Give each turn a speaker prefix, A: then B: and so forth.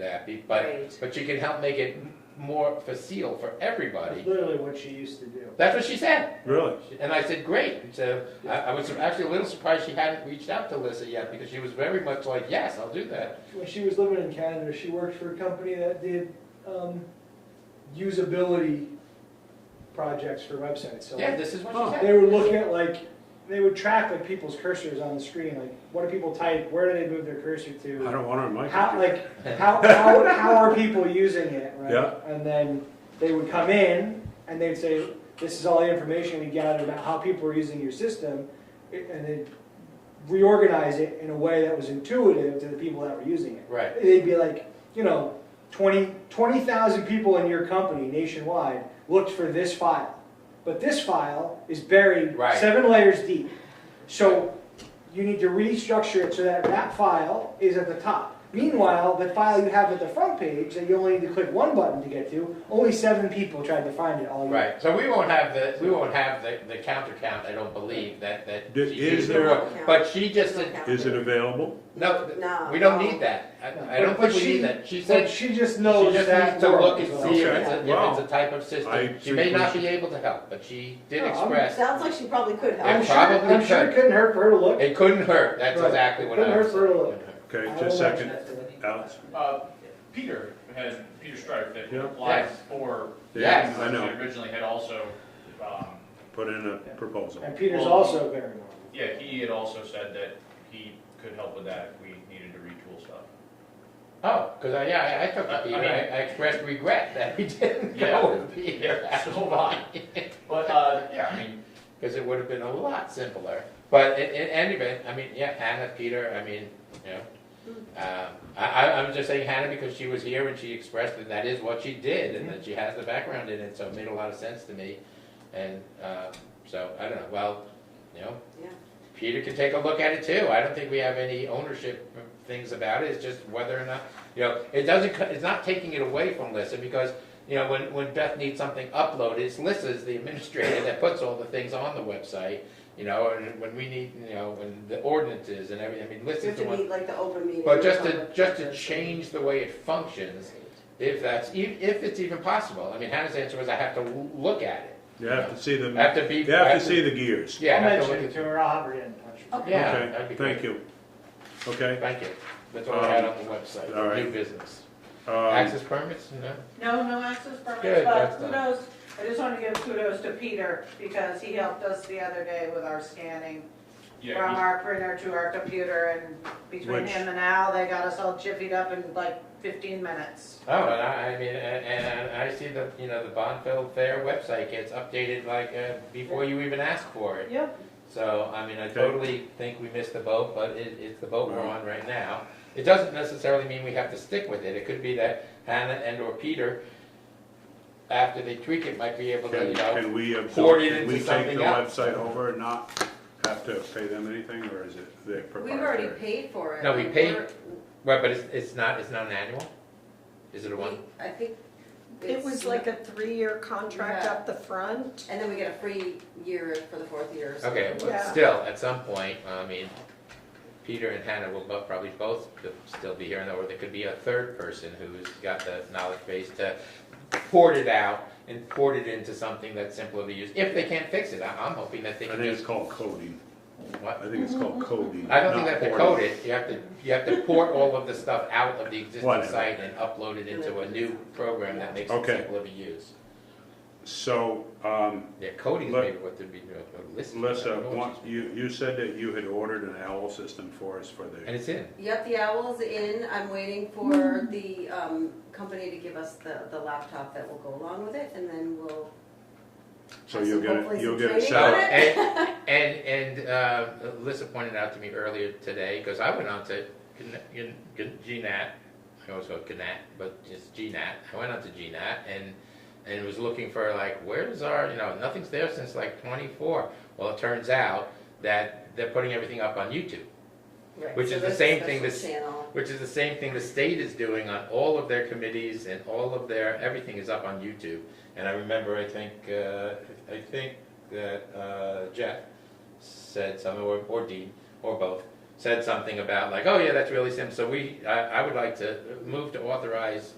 A: happy, but,
B: Right.
A: but you can help make it m- more facile for
C: That's
A: everybody.
C: literally what she used to do.
A: That's what she said,
D: Really?
A: and I said, great, so I, I was actually a little surprised she hadn't reached out to Lissa yet, because she was very much like, yes, I'll do that.
C: When she was living in Canada, she worked for a company that did um, usability projects for websites. So
A: Yeah, oh, this is what she
C: they
A: said.
C: would look at like, they would track like people's cursors on the screen, like what do people type, where do they move their cursor
D: I
C: to?
D: don't want it on my
C: How,
D: computer.
C: like, how, how, how are people using it, right?
D: Yeah.
C: And then they would come in and they'd say, this is all the information we gathered about how people are using your system. And they'd reorganize it in a way that was intuitive to the people that were using it.
A: Right,
C: they'd be like, you know, 20 20,000 people in your company nationwide looked for this file. But this file is buried
A: Right.
C: seven layers deep. So you need to restructure it so that that file is at the top. Meanwhile, the file you have at the front page that you only need to click one button to get to, only seven people tried to find it all year.
A: right, so we won't have the, we won't have the, the counter count, I don't believe, that, that.
D: Did-
A: she-
D: is
A: she-
B: there-
A: But she just
B: There's no
A: said,
B: count.
D: Is it available?
A: no, th-
B: No.
A: we don't need that, I, I don't
C: But
A: think we
C: she-
A: need that, she
C: But
A: said, she
C: she just knows
A: just
C: that
A: needs to
C: world
A: look and
C: as well.
A: see if
D: Okay.
A: it's a, if
D: Wow.
A: it's a type of
D: I
A: system. She
D: think
A: may
D: we
A: not be
D: should-
A: able to help, but she did
C: No, I'm-
A: express.
B: Sounds like she probably could
C: I'm
B: help.
A: Yeah.
C: sure,
A: probably
C: I'm sure
A: could.
C: it couldn't hurt for her to look.
A: It couldn't hurt, that's
C: Right.
A: exactly what I
C: Couldn't
A: was
C: hurt for a little.
A: saying.
D: Okay,
C: I don't
D: just a
C: like
D: second. Alex?
E: Uh, Peter had, Peter Stripe that
D: Yeah.
E: applied for.
A: Yes.
D: I know.
E: Originally had also, um,
D: Put in a proposal.
C: And Peter's
E: Well-
C: also very normal.
E: yeah, he had also said that he could help with that if we needed to retool stuff.
A: Oh, because I, yeah, I- I took
E: I- I
A: the Peter, I,
E: mean-
A: I expressed regret that we didn't
E: Yeah.
A: go with Peter.
E: Yeah, so do I. But, uh, yeah, I mean,
A: Because it would have been a lot simpler. But in, in any event, I mean, yeah, Hannah, Peter, I mean, you know. Um, I, I, I'm just saying Hannah because she was here and she expressed that that is what she did and that she has the background in it, so it made a lot of sense to me. And, um, so, I don't know, well, you know,
B: Yeah.
A: Peter can take a look at it too. I don't think we have any ownership things about it. It's just whether or not, you know, it doesn't, co- it's not taking it away from Lissa because, you know, when, when Beth needs something uploaded, it's Lissa's the administrator that puts all the things on the website, you know, and when we need, you know, when the ordinances and everything, I mean,
B: You
A: Lissa's
B: have
A: the
B: to
A: one.
B: meet like the open meeting.
A: But just to, just to change the way it functions, if that's, e- if it's even possible. I mean, Hannah's answer was I have to l- look at it.
D: You have to see the,
A: I have to be.
D: you have to see the gears.
A: Yeah. I
C: I'll
A: have to
C: mention
A: look
C: it to her, I'll have her get in touch. with you.
B: Okay.
A: Yeah, that'd
D: Okay,
A: be great.
D: thank you.
A: at-
D: Okay,
A: Thank you. That's all I had on the website,
D: Um, All right.
A: new business.
D: um,
A: Access permits, no?
F: No, no access
A: Good,
F: permits, but
A: that's done.
F: kudos, I just want to give kudos to Peter because he helped us the other day with our scanning from
E: yeah,
F: our printer to our computer and between
D: Which-
F: him and Al, they got us all jiffied up in like fifteen minutes.
A: Oh, and I, I mean, and, and I see the, you know, the Bonfield Fair website gets updated like, uh, before you even ask for it.
F: Yep.
A: So, I mean, I
D: Okay.
A: totally think we missed the boat, but it, it's the boat we're on right now. It doesn't necessarily mean we have to stick with it. It could be that Hannah and or Peter, after they tweak it, might be able to,
D: can,
A: you know,
D: can we
A: poured
D: absorb,
A: it
D: can we
A: into
D: take the
A: something else.
D: website over and not have to pay them anything, or is it their
G: We've already
D: proprietary?
G: paid for it.
A: No, we
G: and
A: paid-
G: we're-
A: well, but it's, it's not, it's not an annual? Is it a one?
G: we- I think.
H: It
G: it's-
H: was like a three-year contract
G: Yeah.
H: up the front.
G: And then we get a free year for the fourth year. so-
A: Okay, but
F: Yeah.
A: still, at some point, I mean, Peter and Hannah will bo- probably both could still be here, and or there could be a third person who's got the knowledge base to port it out and port it into something that's simpler to use, if they can't fix it, I- I'm hoping that they
D: I
A: can
D: think it's
A: just,
D: called coding. I
A: what?
D: think it's called coding.
A: I don't think
D: not
A: they have to
D: porting.
A: code it, you have to, you have to port all of the stuff out of the existing
D: Whatever.
A: site and upload it into a new program that makes it
D: Okay.
A: simpler to use.
D: So, um,
A: Yeah, coding is
D: Let-
A: maybe what they'd be doing, but listening. I
D: Melissa,
A: don't know what
D: one-
A: she's-
D: you, you said that you had ordered an owl system for us for
A: And
D: the,
A: it's in,
G: Yep, the owl's in. I'm waiting for the um, company to give us the, the laptop that will go along with it and then we'll.
D: so
G: have
D: you'll
G: some-
D: get,
G: hopefully
D: it. you'll
G: some
D: get
G: training
D: it
A: So,
G: on
D: set up.
A: and, and, and, uh, Alyssa pointed out to me earlier today, because I went on to Gn- Gn- Gn- GNAT, I always go GNAT, but it's GNAT, I went on to GNAT and, and was looking for like, where's our, you know, nothing's there since like twenty-four. Well, it turns out that they're putting everything up on YouTube,
G: Right,
A: which
G: so
A: is the
G: there's a
A: same thing
G: special
A: that's-
G: Channel.
A: which is the same thing the state is doing on all of their committees and all of their, everything is up on YouTube. And I remember, I think, uh, I think that, uh, Jeff said something, or, or Dean, or both, said something about like, oh yeah, that's really simple. So we, I, I would like to move to authorize